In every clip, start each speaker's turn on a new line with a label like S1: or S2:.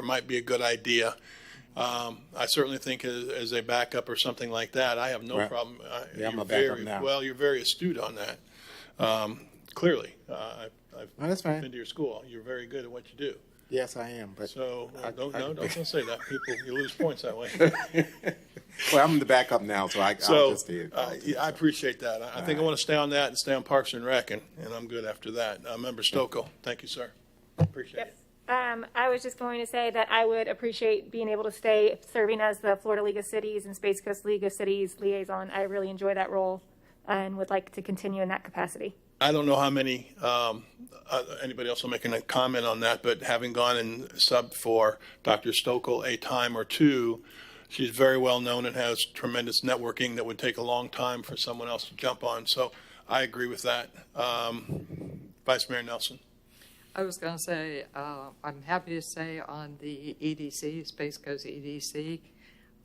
S1: it might be a good idea. Um, I certainly think as, as a backup or something like that, I have no
S2: Right.
S1: problem. I-
S2: Yeah, I'm
S1: you're
S2: a backup
S1: very-
S2: now.
S1: Well, you're very astute on that, um, clearly. Uh, I- I've
S2: No, Oh, that's fine.
S1: Been to your school. You're very good at what you do.
S2: Yes, I am, but,
S1: So,
S2: I-
S1: don't,
S2: I-
S1: no, don't don't say that. People, you lose points that way.
S2: well, I'm the backup now, so I, I'll
S1: So,
S2: just do it.
S1: uh, yeah, I appreciate that. I I think I want to stay on that and stay on Parks and Rec, and, and I'm good after that. Uh, Member Stokoe, thank you, sir. Appreciate it.
S3: Um, I was just going to say that I would appreciate being able to stay serving as the Florida League of Cities and Space Coast League of Cities liaison. I really enjoy that role and would like to continue in that capacity.
S1: I don't know how many, um, uh, anybody else will make a comment on that, but having gone and subbed for Dr. Stokel a time or two, she's very well known and has tremendous networking that would take a long time for someone else to jump on. So I agree with that. Um, Vice Mayor Nelson?
S4: I was going to say, uh, I'm happy to say on the EDC, Space Coast EDC,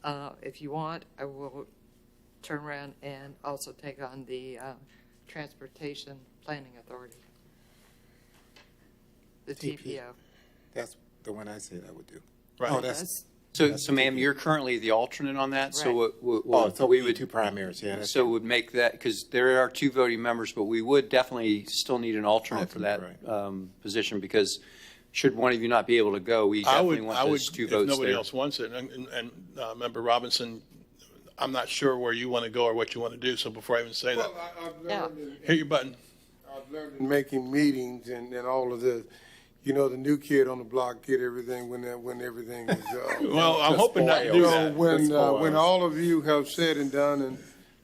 S4: uh, if you want, I will turn around and also take on the uh, Transportation Planning Authority. The
S2: TP.
S4: TPO.
S2: That's the one I said I would do.
S1: Right.
S2: Oh, that's,
S5: So, so ma'am, you're currently the alternate on that, so
S4: Right.
S5: what- what,
S2: oh,
S5: what
S2: so
S5: we
S2: we would
S5: would,
S2: two primaries, yeah. that's-
S5: so would make that, because there are two voting members, but we would definitely still need an alternate for that
S2: Alternate,
S5: um, position, because should one of you not be able to go, we
S1: I would,
S5: definitely
S1: I
S5: want
S1: would,
S5: those two
S1: if
S5: votes
S1: nobody
S5: there.
S1: else wants it, and, and- and uh, Member Robinson, I'm not sure where you want to go or what you want to do, so before I even say that,
S6: Well, uh, I, I've
S4: Yeah.
S6: learned, in,
S1: hit your button.
S6: I've learned in making meetings and, and all of this, you know, the new kid on the block get everything when that, when everything is, uh,
S1: Well, I'm hoping not to do
S6: you
S1: that.
S6: know, when, uh,
S2: Spoils.
S6: when all of you have said and done and,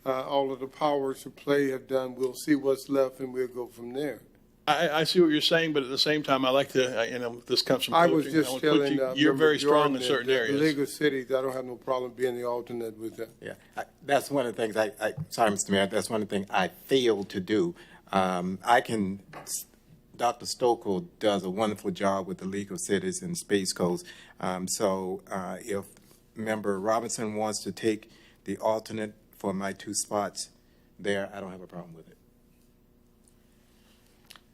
S6: uh, all of the powers to play have done, we'll see what's left and we'll go from there.
S1: I, I see what you're saying, but at the same time, I like to, I- you know, this comes from
S6: I was
S1: coaching.
S6: just
S1: would put
S6: telling,
S1: you-
S6: uh,
S1: You're
S6: Member
S1: very strong
S6: Jordan
S1: in
S6: that
S1: certain
S6: the- The League
S1: areas.
S6: of Cities, I don't have no problem being the alternate with that.
S2: Yeah, I- that's one of the things I, I, sorry, Mr. Mayor, that's one of the things I failed to do. Um, I can, Dr. Stokel does a wonderful job with the League of Cities and Space Coast. Um, so, uh, if member Robinson wants to take the alternate for my two spots there, I don't have a problem with it.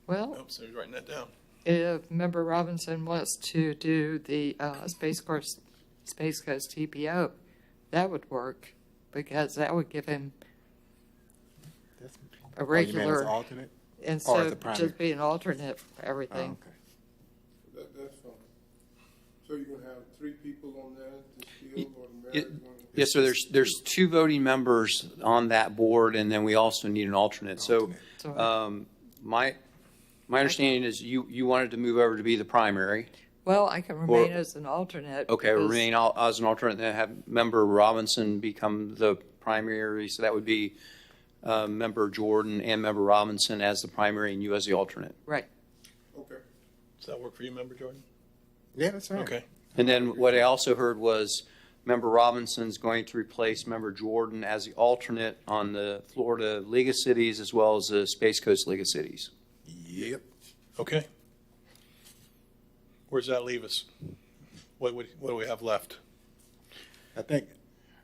S4: Well,
S1: Oops, I was Oh, writing that down.
S4: if Member Robinson wants to do the uh, Space Coast, Space Coast TPO, that would work, because that would give him
S2: That's-
S4: a
S2: Oh, you mean as
S4: regular,
S2: alternate?
S4: and
S2: or as
S4: so
S2: a primary?
S4: just be an alternate for
S2: Oh,
S4: everything.
S2: okay.
S6: That, that's fine. So you're gonna have three people on there to
S5: Y-
S6: field or the
S5: y-
S6: mayor's gonna?
S5: Yes, so there's, there's two voting members on that board, and then we also need an alternate. So
S4: So-
S5: um, my, my understanding is you, you wanted to move over to be the primary.
S4: Well, I can remain as an alternate.
S5: Okay,
S4: because-
S5: remain al- as an alternate, then have member Robinson become the primary, so that would be uh, member Jordan and member Robinson as the primary and you as the alternate.
S4: Right.
S6: Okay.
S1: Does that work for you, Member Jordan?
S2: Yeah, that's right.
S1: Okay.
S5: And then what I also heard was member Robinson's going to replace member Jordan as the alternate on the Florida League of Cities as well as the Space Coast League of Cities.
S2: Yep.
S1: Okay. Where does that leave us? What, would- what do we have left?
S2: I think,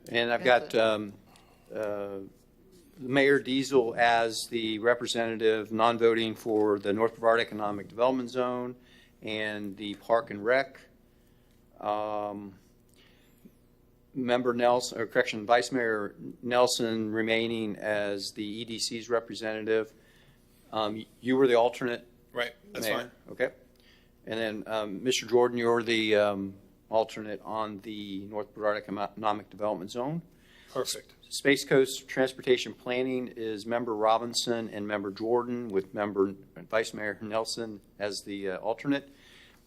S5: And I've
S4: That's
S5: got um, uh, Mayor Diesel as the representative, non-voting for the North Brevard Economic Development Zone and the Park and Rec. Um, Member Nelson, or correction, Vice Mayor Nelson remaining as the EDC's representative. Um, You were the alternate,
S1: Right, that's
S5: Mayor,
S1: fine.
S5: Okay. And then, um, Mr. Jordan, you're the um, alternate on the North Brevard Economic Development Zone.
S1: Perfect.
S5: Space Coast Transportation Planning is member Robinson and member Jordan with member Vice Mayor Nelson as the uh, alternate.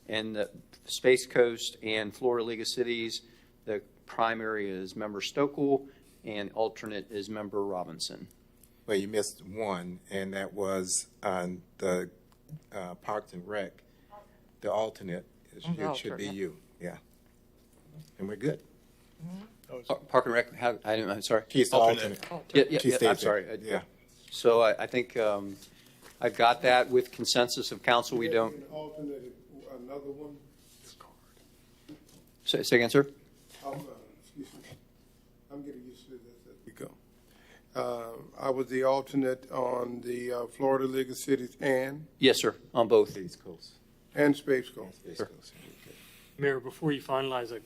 S5: And the Space Coast and Florida League of Cities, the primary is member Stokel and alternate is member Robinson.
S2: well, you missed one, and that was on the uh, Parks and Rec. The alternate, is-
S5: Mm-hmm.
S4: Mhm.
S2: it should be
S4: Alternate.
S2: you, yeah. And we're good.
S5: Par- Park and Rec, how- I didn't, I'm sorry.
S2: She's the
S1: Alternate.
S2: alternate.
S5: Yeah, yeah,
S2: She
S5: yeah,
S2: stays
S5: I'm
S2: there.
S5: sorry. I-
S2: Yeah.
S5: So I, I think um, I've got that with consensus of council. We don't,
S6: An alternate, another one,
S5: say say again, sir?
S6: I'm, uh, excuse me, I'm getting used to this as we go. Uh, I was the alternate on the uh, Florida League of Cities and,
S5: Yes, sir, on both.
S2: Space Coast.
S6: and Space Coast.
S2: Space Coast.
S7: Mayor, before you finalize, I